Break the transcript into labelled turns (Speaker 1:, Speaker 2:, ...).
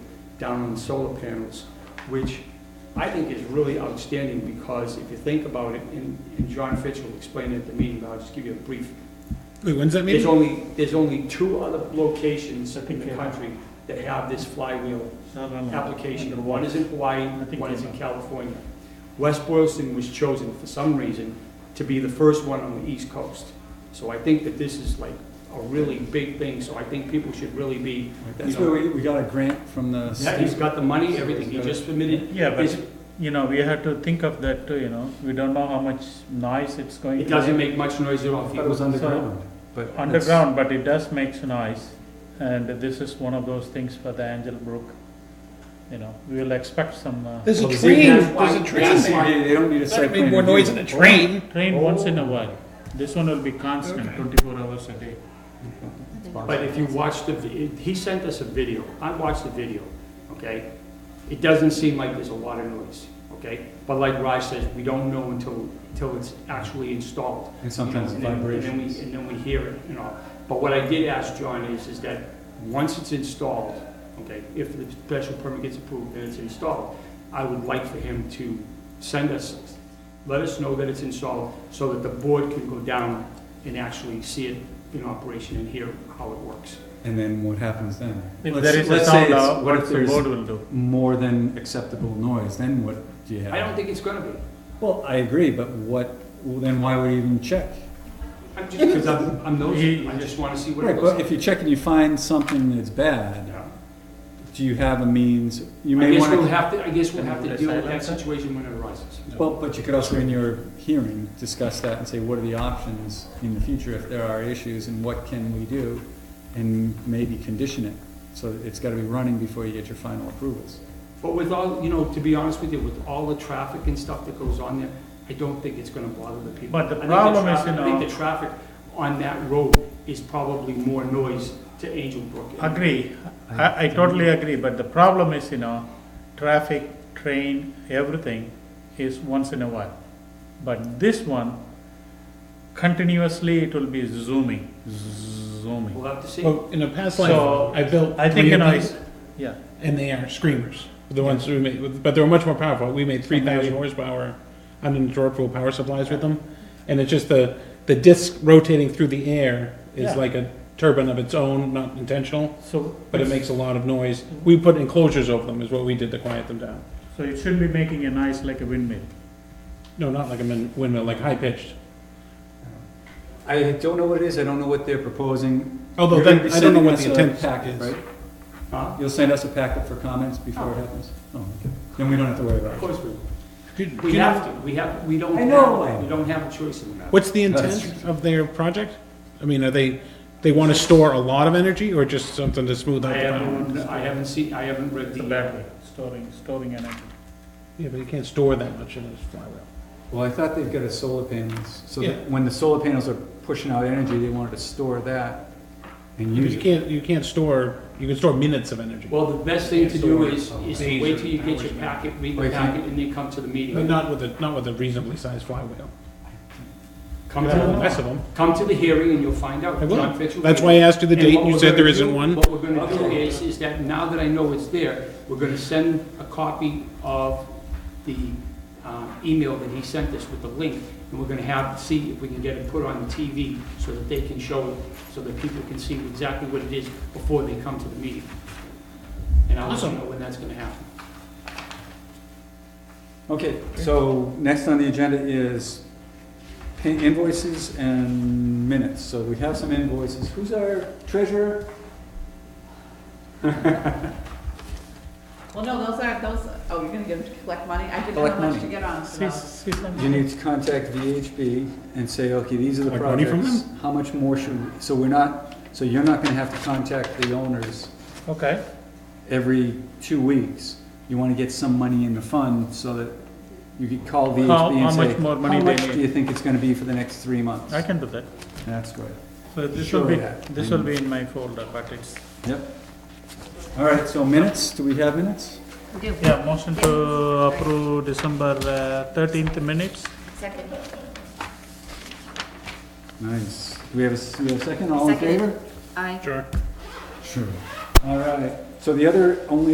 Speaker 1: down on the solar panels, which I think is really outstanding because if you think about it, and and John Fitch will explain it at the meeting, but I'll just give you a brief
Speaker 2: Wait, when's that
Speaker 1: there's
Speaker 2: meeting?
Speaker 1: only, there's only two other locations in the
Speaker 3: Okay.
Speaker 1: country that have this flywheel
Speaker 3: Southern.
Speaker 1: application. One is in Hawaii,
Speaker 3: I think
Speaker 1: one is in
Speaker 3: they-
Speaker 1: California. West Boylston was chosen for some reason to be the first one on the East Coast. So I think that this is like a really big thing, so I think people should really be,
Speaker 4: That's where we, we got a grant from the
Speaker 1: yeah, he's
Speaker 4: state.
Speaker 1: got the money, everything, he just submitted.
Speaker 3: Yeah,
Speaker 1: It's-
Speaker 3: but, you know, we have to think of that too, you know, we don't know how much noise it's going to.
Speaker 1: It doesn't make much noise at all.
Speaker 4: I thought it was underground, but. it's-
Speaker 3: Underground, but it does make noise, and this is one of those things for the Angel Brook, you know, we will expect some, uh,
Speaker 2: There's a
Speaker 4: Well, the
Speaker 2: train,
Speaker 1: same- that's why-
Speaker 2: there's a train
Speaker 4: It's a
Speaker 2: there.
Speaker 4: CBA, They don't need a
Speaker 2: That'd make
Speaker 4: site plan
Speaker 2: more
Speaker 4: review.
Speaker 2: noise than a train.
Speaker 3: train
Speaker 4: Oh.
Speaker 3: once in a while. This one will be constant,
Speaker 2: Okay.
Speaker 3: twenty-four hours a day.
Speaker 1: But if you watch the, vi- he sent us a video, I watched the video, okay? It doesn't seem like there's a lot of noise, okay? But like Raj says, we don't know until, until it's actually installed.
Speaker 4: And sometimes
Speaker 1: And then- And then
Speaker 4: vibrations.
Speaker 1: we, and then we hear it, you know? But what I did ask John is, is that once it's installed, okay, if the special permit gets approved and it's installed, I would like for him to send us, let us know that it's installed so that the board can go down and actually see it in operation and hear how it works.
Speaker 4: And then what happens then?
Speaker 3: If
Speaker 4: Let's-
Speaker 3: there is a
Speaker 4: let's say
Speaker 3: sound,
Speaker 4: it's-
Speaker 3: uh,
Speaker 4: What
Speaker 3: what
Speaker 4: if
Speaker 3: the
Speaker 4: there's
Speaker 3: board will do.
Speaker 4: more than acceptable noise, then what do you have?
Speaker 1: I don't think it's gonna be.
Speaker 4: Well, I agree, but what, well, then why would you even check?
Speaker 1: I'm just, because I'm, I'm nosy, I just wanna see what
Speaker 4: Right,
Speaker 1: it looks
Speaker 4: but
Speaker 1: like.
Speaker 4: if you check and you find something that's bad,
Speaker 1: Yeah.
Speaker 4: do you have a means, you
Speaker 1: I
Speaker 4: may
Speaker 1: guess we'll
Speaker 4: wanna,
Speaker 1: have to, I guess we'll have to
Speaker 3: Can
Speaker 1: deal
Speaker 3: we
Speaker 1: with that
Speaker 3: silence it?
Speaker 1: situation when it arises.
Speaker 4: well, but you could also in your hearing, discuss that and say, what are the options in the future if there are issues and what can we do? And maybe condition it, so it's gotta be running before you get your final approvals.
Speaker 1: But with all, you know, to be honest with you, with all the traffic and stuff that goes on there, I don't think it's gonna bother the people.
Speaker 3: But the
Speaker 1: I think
Speaker 3: problem is,
Speaker 1: traffic-
Speaker 3: you
Speaker 1: I
Speaker 3: know-
Speaker 1: think the traffic on that road is probably more noise to Angel Brook.
Speaker 3: Agree, I, I totally agree, but the problem is, you know, traffic, train, everything is once in a while. But this one, continuously it will be zooming, zooming.
Speaker 1: We'll have to see.
Speaker 2: Well, in a past
Speaker 3: So,
Speaker 2: life, I built
Speaker 3: I think,
Speaker 2: three
Speaker 3: you know,
Speaker 2: of
Speaker 3: it's,
Speaker 2: these,
Speaker 3: yeah,
Speaker 2: and they are screamers. The ones we made, but they were much more powerful. We made three thousand horsepower uninterruptible power supplies with them, and it's just the, the disc rotating through the air is
Speaker 3: Yeah.
Speaker 2: like a turbine of its own, not intentional,
Speaker 3: so.
Speaker 2: but it makes a lot of noise. We put enclosures over them is what we did to quiet them down.
Speaker 3: So it should be making a noise like a windmill.
Speaker 2: No, not like a min- windmill, like high pitched.
Speaker 4: I don't know what it is, I don't know what they're proposing.
Speaker 2: Although
Speaker 4: You're
Speaker 2: then,
Speaker 4: gonna be
Speaker 2: I don't know
Speaker 4: sending
Speaker 2: what
Speaker 4: us
Speaker 2: the
Speaker 4: a
Speaker 2: intent
Speaker 4: packet,
Speaker 2: is.
Speaker 4: right?
Speaker 1: Huh?
Speaker 4: You'll send us a packet for comments before it happens? Oh, okay. Then we don't have to worry about
Speaker 1: Of
Speaker 4: it.
Speaker 1: course we will.
Speaker 2: Could-
Speaker 1: We
Speaker 2: could-
Speaker 1: have to, we have, we don't
Speaker 4: I know.
Speaker 1: have, we don't have a choice in that.
Speaker 2: What's the
Speaker 4: That's
Speaker 2: intent of their project? I mean, are they, they want to store a lot of energy or just something to smooth out
Speaker 1: I
Speaker 2: the
Speaker 1: haven't,
Speaker 2: power?
Speaker 1: I haven't seen, I haven't read
Speaker 3: It's
Speaker 1: the.
Speaker 3: a battery, storing, storing energy.
Speaker 2: Yeah, but you can't store that much in a flywheel.
Speaker 4: Well, I thought they've got a solar panels, so
Speaker 2: Yeah.
Speaker 4: that when the solar panels are pushing out energy, they wanted to store that and
Speaker 2: You
Speaker 4: use it.
Speaker 2: can't, you can't store, you can store minutes of energy,
Speaker 1: Well, the best thing to
Speaker 2: Yeah,
Speaker 1: do
Speaker 2: so
Speaker 1: is, is to wait till you get your packet, read the
Speaker 4: Wait, can-
Speaker 1: packet, and then come to the
Speaker 2: but
Speaker 1: meeting.
Speaker 2: not with a, not with a reasonably sized flywheel.
Speaker 1: Come to,
Speaker 2: Less
Speaker 1: the-
Speaker 2: of them.
Speaker 1: come to the hearing and you'll find out.
Speaker 2: I will.
Speaker 1: John Fitch will
Speaker 2: That's
Speaker 1: be
Speaker 2: why I asked you the
Speaker 1: And
Speaker 2: date,
Speaker 1: what
Speaker 2: and you
Speaker 1: we're
Speaker 2: said
Speaker 1: gonna
Speaker 2: there isn't
Speaker 1: do-
Speaker 2: one.
Speaker 1: What we're gonna do is, is that now that I know it's there, we're gonna send a copy of the uh, email that he sent us with the link, and we're gonna have, see if we can get it put on TV so that they can show it, so that people can see exactly what it is before they come to the meeting. And I'll let you
Speaker 2: Awesome.
Speaker 1: know when that's gonna happen.
Speaker 4: Okay, so next on the agenda is pay- invoices and minutes. So we have some invoices. Who's our treasurer?
Speaker 5: Well, no, those aren't, those, oh, you're gonna get them to collect money? I didn't
Speaker 4: Collect
Speaker 5: know how much
Speaker 4: money.
Speaker 5: to get on, so.
Speaker 3: See, see
Speaker 4: You
Speaker 3: something?
Speaker 4: need to contact VHB and say, okay, these are the
Speaker 2: Like money
Speaker 4: projects.
Speaker 2: from
Speaker 4: How much more should, we- so we're not, so you're not gonna have to contact the owners
Speaker 3: Okay,
Speaker 4: every two weeks, you want to get some money in the fund so that you could call VHB
Speaker 3: How-
Speaker 4: and
Speaker 3: how
Speaker 4: say,
Speaker 3: much more money
Speaker 4: how
Speaker 3: they
Speaker 4: much do
Speaker 3: need?"
Speaker 4: you think it's going to be for the next three months?
Speaker 3: I can do that.
Speaker 4: That's good.
Speaker 3: So this will
Speaker 4: Sure,
Speaker 3: be,
Speaker 4: yeah.
Speaker 3: this will be in my folder, but it's,
Speaker 4: Yep. All right, so minutes, do we have minutes?
Speaker 5: We do.
Speaker 3: yeah, motion to approve December uh, thirteenth minutes.
Speaker 5: Second.
Speaker 4: Nice. Do we have a, s- we have a second? All in
Speaker 5: Second.
Speaker 4: favor?
Speaker 5: Aye.
Speaker 2: Sure.
Speaker 4: Sure. All right. So the other, only